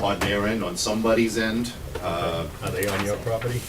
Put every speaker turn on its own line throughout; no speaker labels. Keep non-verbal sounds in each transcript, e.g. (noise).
on their end, on somebody's end. Uh,
Are they on your property?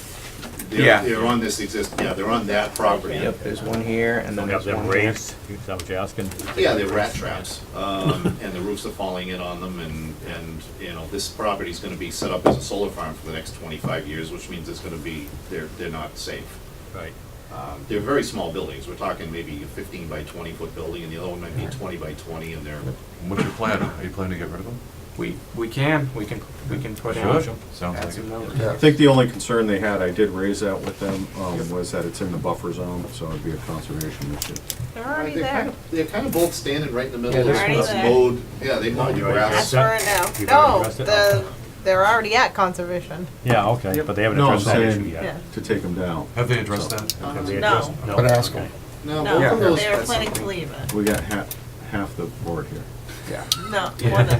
they're-
Yeah.
They're on this exist, yeah, they're on that property.
Yep, there's one here, and then
Have
there's one
them
here.
raised, is that what you're asking?
Yeah, they're rat traps, um, (laughs) and the roofs are falling in on them, and, and, you know, this property's gonna be set up as a solar farm for the next twenty-five years, which means it's gonna be, they're, they're not safe.
Right,
Um, They're very small buildings, we're talking maybe a fifteen by twenty foot building, and the other one might be twenty by twenty, and they're,
What's your plan? Are you planning to get rid of them?
We, we can, we can, we can put
Sure.
out,
Sounds
add
like
some
it.
notes.
I think the only concern they had, I did raise that with them, um, was that it's in the buffer zone, so it'd be a conservation issue.
They're already
They're kind
there.
of- They're kind of both standing right in the middle
Yeah,
of
they're
this
already there.
mowed, yeah, they mowed the
You're right.
grass.
That's
That's for
it.
now.
You've
No,
addressed it.
the, they're already at conservation.
yeah, okay, but they haven't
No, I'm
addressed that issue
saying
yet.
Yeah.
to take them down.
Have they addressed that?
Have they
Um, No.
addressed- No.
But ask 'em.
okay.
No,
No,
both of those,
they were planning to leave it.
We got half, half the board here.
yeah.
No, more than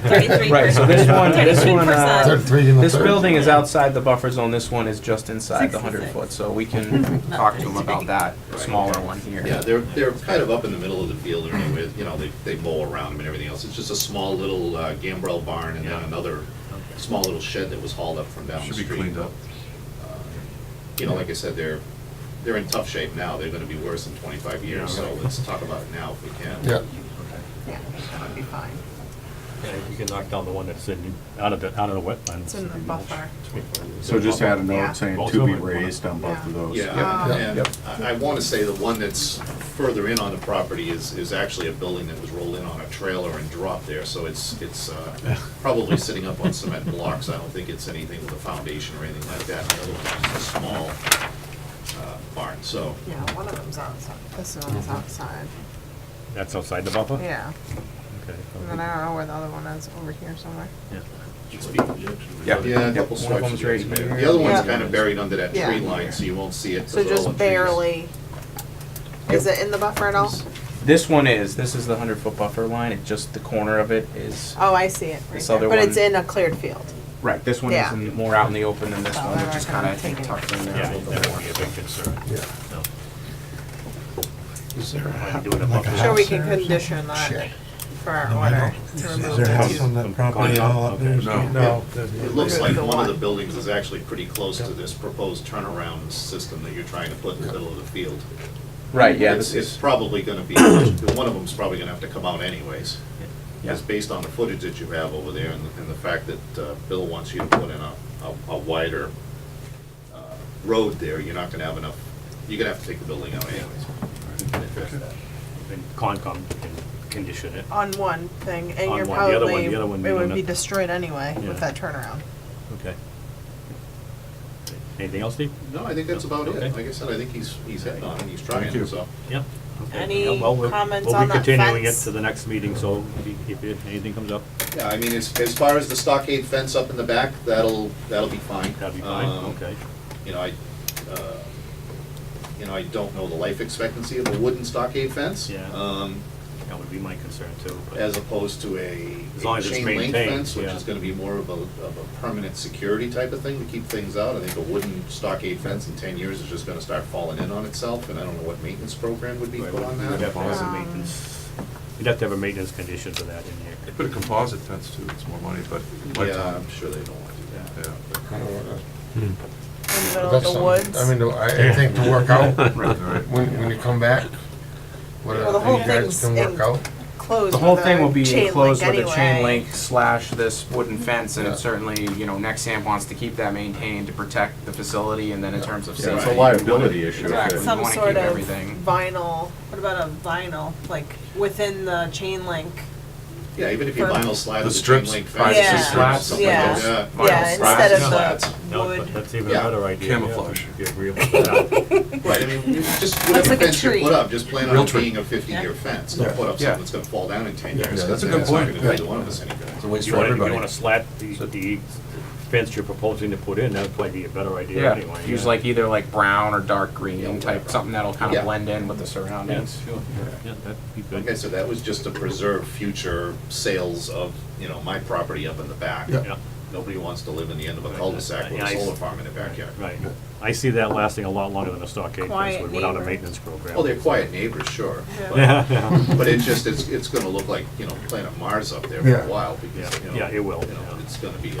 (laughs)
thirty-three
Right, so
percent.
this
(laughs)
one, this one, uh,
33%.
Thirty-three and a
this
third.
building is outside the buffer zone, this one is just inside the hundred
66.
foot, so we
(laughs)
can talk to them about that smaller one here.
yeah, they're, they're kind of up in the middle of the field anyway, you know, they, they mow around them and everything else. It's just a small little uh, gambrel barn and then another small little shed that was hauled up from down the
Should be
street. Uh,
cleaned up.
You know, like I said, they're, they're in tough shape now, they're gonna be worse in twenty-five years, so let's talk about it now if we can.
Yeah,
Yeah, that would be fine.
Yeah, You can knock down the one that's in, out of the, out of the wetlands.
It's in the buffer.
So just add a
Yeah.
note saying
Both
to
of
be
them.
raised on both of those.
Yeah,
Yep.
and I, I wanna say the one that's further in on the property is, is actually a building that was rolled in on a trailer and dropped there, so it's, it's, uh,
(laughs)
probably sitting up on cement blocks, I don't think it's anything with a foundation or anything like that, The other one's just a small, uh, barn, so,
Yeah, one of them's outside. This
Mm-hmm.
one's outside.
That's outside the buffer?
Yeah.
Okay.
And then I don't know where the other one is, over here somewhere.
Yeah.
Yep.
yeah, a
Yep,
couple
one of
swipes.
them's
of the
right
excavator.
here.
The other one's
Yeah.
kinda buried under that tree
Yeah.
line, so you won't see it. 'cause
So
it's all in
just
trees.
barely, is it in the buffer at all?
This one is, this is the hundred foot buffer line, it just, the corner of it is,
Oh, I see it. right
This
there.
other
But it's
one-
in a cleared field.
right, this one
Yeah.
is in- more out in the open than this
So
one,
they're
which is
gonna
kinda I
take
think,
it.
tucked in there
Yeah,
a little
that
bit
would
more.
be a big concern.
yeah.
No.
Is there a
Why
house?
do it above
like a
the
Sure, we
house
can
there or something?
condition that
Shed.
for our
No, I
order
don't-
to
Is
remove
there a
that.
house on that property at all up there?
No.
there's
It
not.
looks like
The
one
one.
of the buildings is actually pretty close to this proposed turnaround system that you're trying to put in the middle of the field.
Right, yeah,
It's,
this
it's
is,
probably gonna be, one of them's probably gonna have to come out anyways.
Yeah.
Just based on the footage that you have over there and, and the fact that, uh, Bill wants you to put in a, a- a wider, uh, road there, you're not gonna have enough, you're gonna have to take the building out anyways. And address that.
And Concom can condition it.
On one thing, and
On
you're
one. The other one-
probably,
the other one
it
we don't
would be
know.
destroyed anyway
Yeah.
with that turnaround.
Okay. Anything else, Steve?
No, I think that's about it.
Okay.
Like I said, I think he's, he's heading on and he's trying, so.
Yep. Okay.
Any
Yeah, well, we'll-
comments on that
We'll be continuing it
fence?
to the next meeting, so if- if it- anything comes up,
Yeah, I mean, as, as far as the stockade fence up in the back, that'll, that'll be fine.
that'd be fine,
Um,
okay.
You know, I, uh, you know, I don't know the life expectancy of a wooden stockade fence.
Yeah.
Um,
That would be my concern too. but-
as opposed to a
As long
a
as it's
chain link
maintained,
fence, which
yeah.
is gonna be more of a, of a permanent security type of thing to keep things out. I think a wooden stockade fence in ten years is just gonna start falling in on itself, and I don't know what maintenance program would be
Right,
put on
We'd have
that.
to have some
Um,
maintenance, you'd have to have a maintenance condition for that in here.
They put a composite fence too, it's more money, but.
Yeah, I'm sure they don't wanna do
(laughs)
that.
Yeah.
In the middle of
That's
the
something-
woods.
I mean, I, I think to work out,
Right, right.
when, when you come back, whether
Well, the whole
you
thing's
guys can work
in-
out.
Closed
the whole
with
thing
a
will be
chain
enclosed
link
with a chain
anyway.
link slash this wooden fence, and
Yeah.
certainly, you know, Nexamp wants to keep that maintained to protect the facility, and then in terms of
Yeah, It's
safety.
a liability issue. if
Exactly.
it-
Some
Some
wanna
sort
keep
of
everything.
vinyl, what about a vinyl, like within the chain link?
Yeah, even if you
For-
vinyl slide
The
with a chain
strips,
link fence.
privacy
Yeah.
slats,
something like
yeah.
that.
Vinyl slats.
Yeah, instead of
Slats.
the
No, but
wood.
that's even a
Yeah.
better idea. yeah,
Camouflage.
If you're agreeable to that.
Right, I mean, you just
Looks
whatever
like a
fence you
tree.
put up, just plan on
Real
it
tree.
being a fifty-year fence, don't
Yeah.
put up
Yeah.
something that's gonna fall down in ten
Yeah,
years.
yeah,
'cause
that's a
then
good
it's not
point.
gonna do
Yeah.
either one of us any good.
It's a waste
You
for
wanna, you
everybody.
wanna slat the, the fence you're proposing to put in, that'd probably be a better idea
Yeah,
anyway.
use like either like brown or dark green type, something that'll kind
Yeah.
of blend in with the
Yeah,
surroundings.
sure, yeah, that'd be
Like I
good.
said, that was just to preserve future sales of, you know, my property up in the back.
Yeah.
Yeah,
Nobody wants to live in the end of a cul-de-sac with
Yeah,
a
I-
solar farm in their backyard.
right. I see that lasting a lot longer than a stockade fence
Quiet
would without a
neighbor.
maintenance program.
Well, they're quiet neighbors, sure,
Yeah, (laughs) yeah.
but it's just, it's, it's gonna look like, you know, Planet Mars up there for
Yeah.
a while, because,
Yeah,
you know.
yeah, it will,
you know,
yeah.
It's gonna be